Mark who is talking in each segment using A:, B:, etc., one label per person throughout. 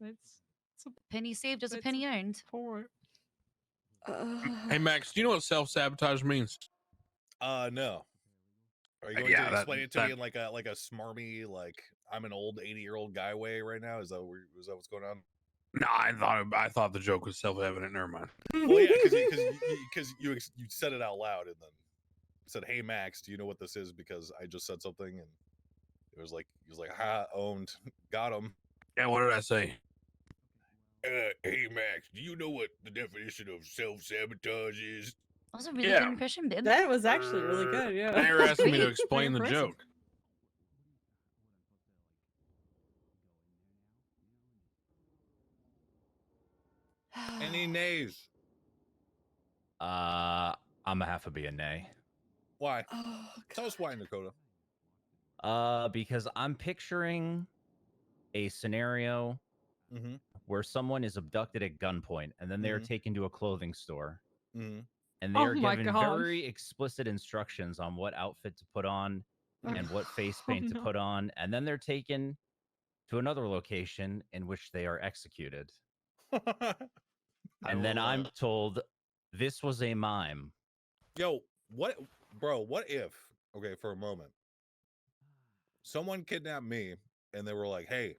A: That's
B: Penny saved is a
A: That's-
B: penny earned.
A: poor.
C: Hey
D: Ugh.
C: Max, do you know what self sabotage means?
E: Uh, no. Are you
D: Uh,
E: going
D: yeah,
E: to
D: that-
E: explain it to
D: that-
E: me in like a like a smarmy like I'm an old eighty year old guy way right now? Is that where- is that what's going on?
C: No, I thought I thought the joke was self evident. Never mind.
E: Well, yeah, because because you, ex- you said it out loud and then said, "Hey Max, do you know what this is?" Because I just said something and it was like he was like, "Ha, owned, got him."
C: Yeah, what did I say?
E: Uh, hey Max, do you know what the definition of self sabotage is?
B: That was a really
C: Yeah.
B: good impression, Ben.
D: that was actually really
C: Uh,
D: good.
C: They
D: Yeah.
C: were asking me to
B: Pretty
C: explain the
B: impressive.
C: joke.
E: Any nays?
F: Uh, I'm gonna have to be a nay.
E: Why?
D: Oh,
E: Tell us why, Dakota.
F: Uh, because I'm picturing a scenario
E: Mm-hmm.
F: where someone is abducted at gunpoint and then they are
E: Mhm.
F: taken to a clothing store
E: Mm-hmm.
F: and they
A: Mm-hmm. Oh
F: are
A: my
F: given
A: God.
F: very explicit instructions on what outfit to put on and what face
A: Oh,
F: paint to
A: no.
F: put on, and then they're taken to another location in which they are executed.
E: mm-hmm. I
F: and then
E: love
F: I'm
E: it.
F: told this was a mime.
E: yo, what, bro? What if? Okay, for a moment, someone kidnapped me, and they were like, "Hey,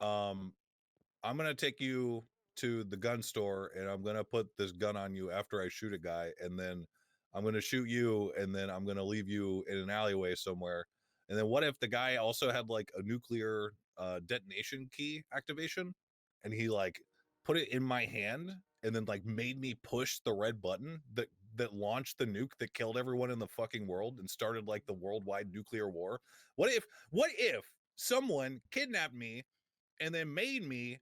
E: um, I'm gonna take you to the gun store, and I'm gonna put this gun on you after I shoot a guy, and then I'm gonna shoot you, and then I'm gonna leave you in an alleyway somewhere." And then what if the guy also had like a nuclear uh, detonation key activation, and he like put it in my hand and then like made me push the red button that that launched the nuke that killed everyone in the fucking world and started like the worldwide nuclear war. What if what if someone kidnapped me and then made me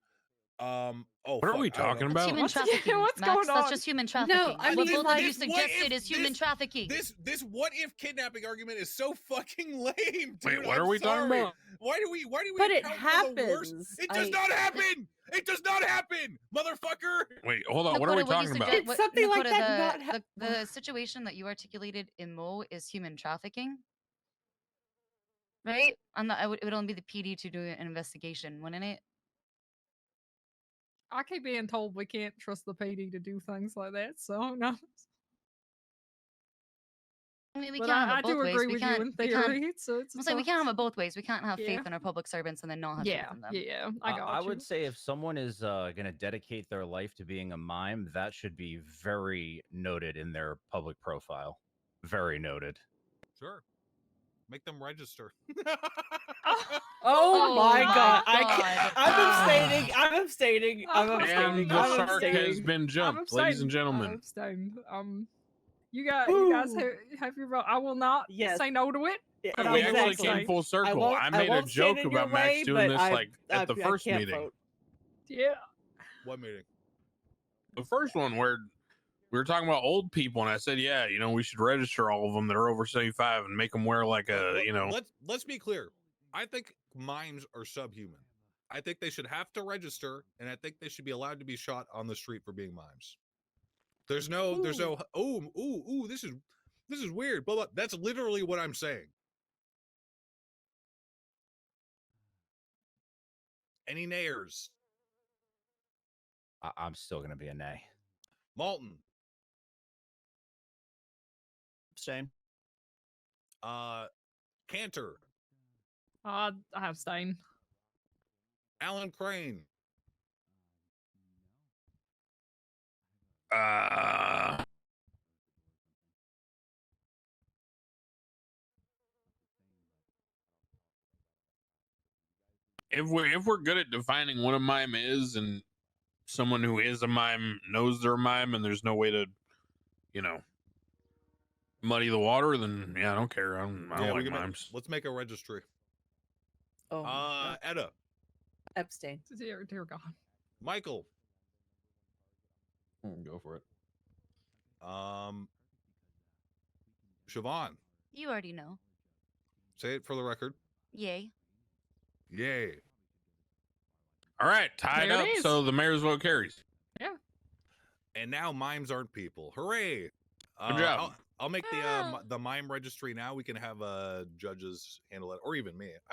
E: um oh
C: What are we
E: fuck, I don't
C: talking
E: know.
C: about?
B: Human
D: What's- yeah,
B: trafficking.
D: what's
B: Max,
D: going
B: That's
D: on?
B: just human
D: No,
B: trafficking.
D: I
B: what
D: mean,
B: both
D: like-
B: of you
D: What
B: suggested
E: if
B: is human
E: this-
B: trafficking.
E: This this what if kidnapping argument is so fucking lame. Dude.
C: Wait, what
E: I'm
C: are we talking
E: sorry.
C: about?
E: Why do we why do we
D: But it
E: account for the worst-
D: happens.
E: It does
D: I-
E: not happen. It does not happen, modherfucker.
C: Wait, hold on. What are we
B: Nakota, you
C: talking about?
B: suggest-
D: Did something like
B: Nakota,
D: that
B: the,
D: not hap-
B: uh, the, the situation that you articulated in Mo is human trafficking, right? I'm not. I would, it would only be the PD to do an investigation, wouldn't it?
A: I keep being told we can't trust the PD to do things like that. So no,
B: I mean, we
A: but
B: can't
A: I,
B: have
A: I
B: it both
A: do
B: ways.
A: agree
B: we
A: with
B: can't.
A: you in
B: we can't.
A: theory. So it's
B: I'm saying we
A: it's-
B: can't have it both ways. We can't have
A: Yeah.
B: faith in our public servants and then not have
A: Yeah,
B: faith in them.
A: yeah. I
F: Uh,
A: got
F: I
A: you.
F: would say if someone is uh, going to dedicate their life to being a mime, that should be very noted in their public profile. Very noted.
E: Sure. Make them register.
D: Oh,
A: Oh
D: my
A: my
D: god. I
B: God.
D: can't. I'm abstaining. I'm abstaining. I'm
A: Oh.
D: abstaining.
C: And
A: I'm
C: the shark has
D: abstaining.
C: been
A: I'm
C: jumped, ladies and
A: abstained. I'm
C: gentlemen.
A: abstained. Um, you got you guys
D: Ooh.
A: have, have your vote. I will not
D: Yes.
A: say no to it.
D: Yeah,
A: But
C: we actually
A: Exactly.
C: came full circle.
D: won't-
C: I,
D: I
C: made a
D: won't stand
C: joke
D: in your
C: about Max
D: way,
C: doing
D: but
C: this
D: I-
C: like
D: I-
C: at the
D: I
C: first
D: can't
C: meeting.
D: vote.
A: Yeah.
E: what meeting?
C: The first one where we were talking about old people, and I said, "Yeah, you know, we should register all of them that are over seventy-five and make them wear like
E: Let-
C: a,
E: let-
C: uh, you know."
E: let's let's be clear i think mimes are subhuman i think they should have to register and i think they should be allowed to be shot on the street for being mimes there's no there's no oh ooh ooh this is this is weird blah blah that's literally what i'm saying any nayers
F: I- I'm still going to be a nay.
E: malton
G: Same.
E: uh cantor
A: Uh, I abstain.
E: alan crane
C: Uh, if we if we're good at defining what a mime is, and someone who is a mime knows they're a mime, and there's no way to, you know, muddy the water, then yeah, I don't care. I don't, I don't
E: Yeah, we
C: like
E: can make-
C: mimes.
E: let's make a registry
D: Oh,
E: uh edda
D: abstain.
A: Dear, dear God.
E: michael
C: Mm, Go for it.
E: Um, Siobhan,
B: You already know.
E: say it for the record.
B: Yay.
E: Yay.
C: All right, tied
A: There it
C: up.
A: is.
C: So the mayor's vote carries.
E: And now mimes aren't people. Hooray. Uh,
C: Good job.
E: I'll, I'll make the uh, mi- the mime registry now. We can have uh, judges handle it, or even me. I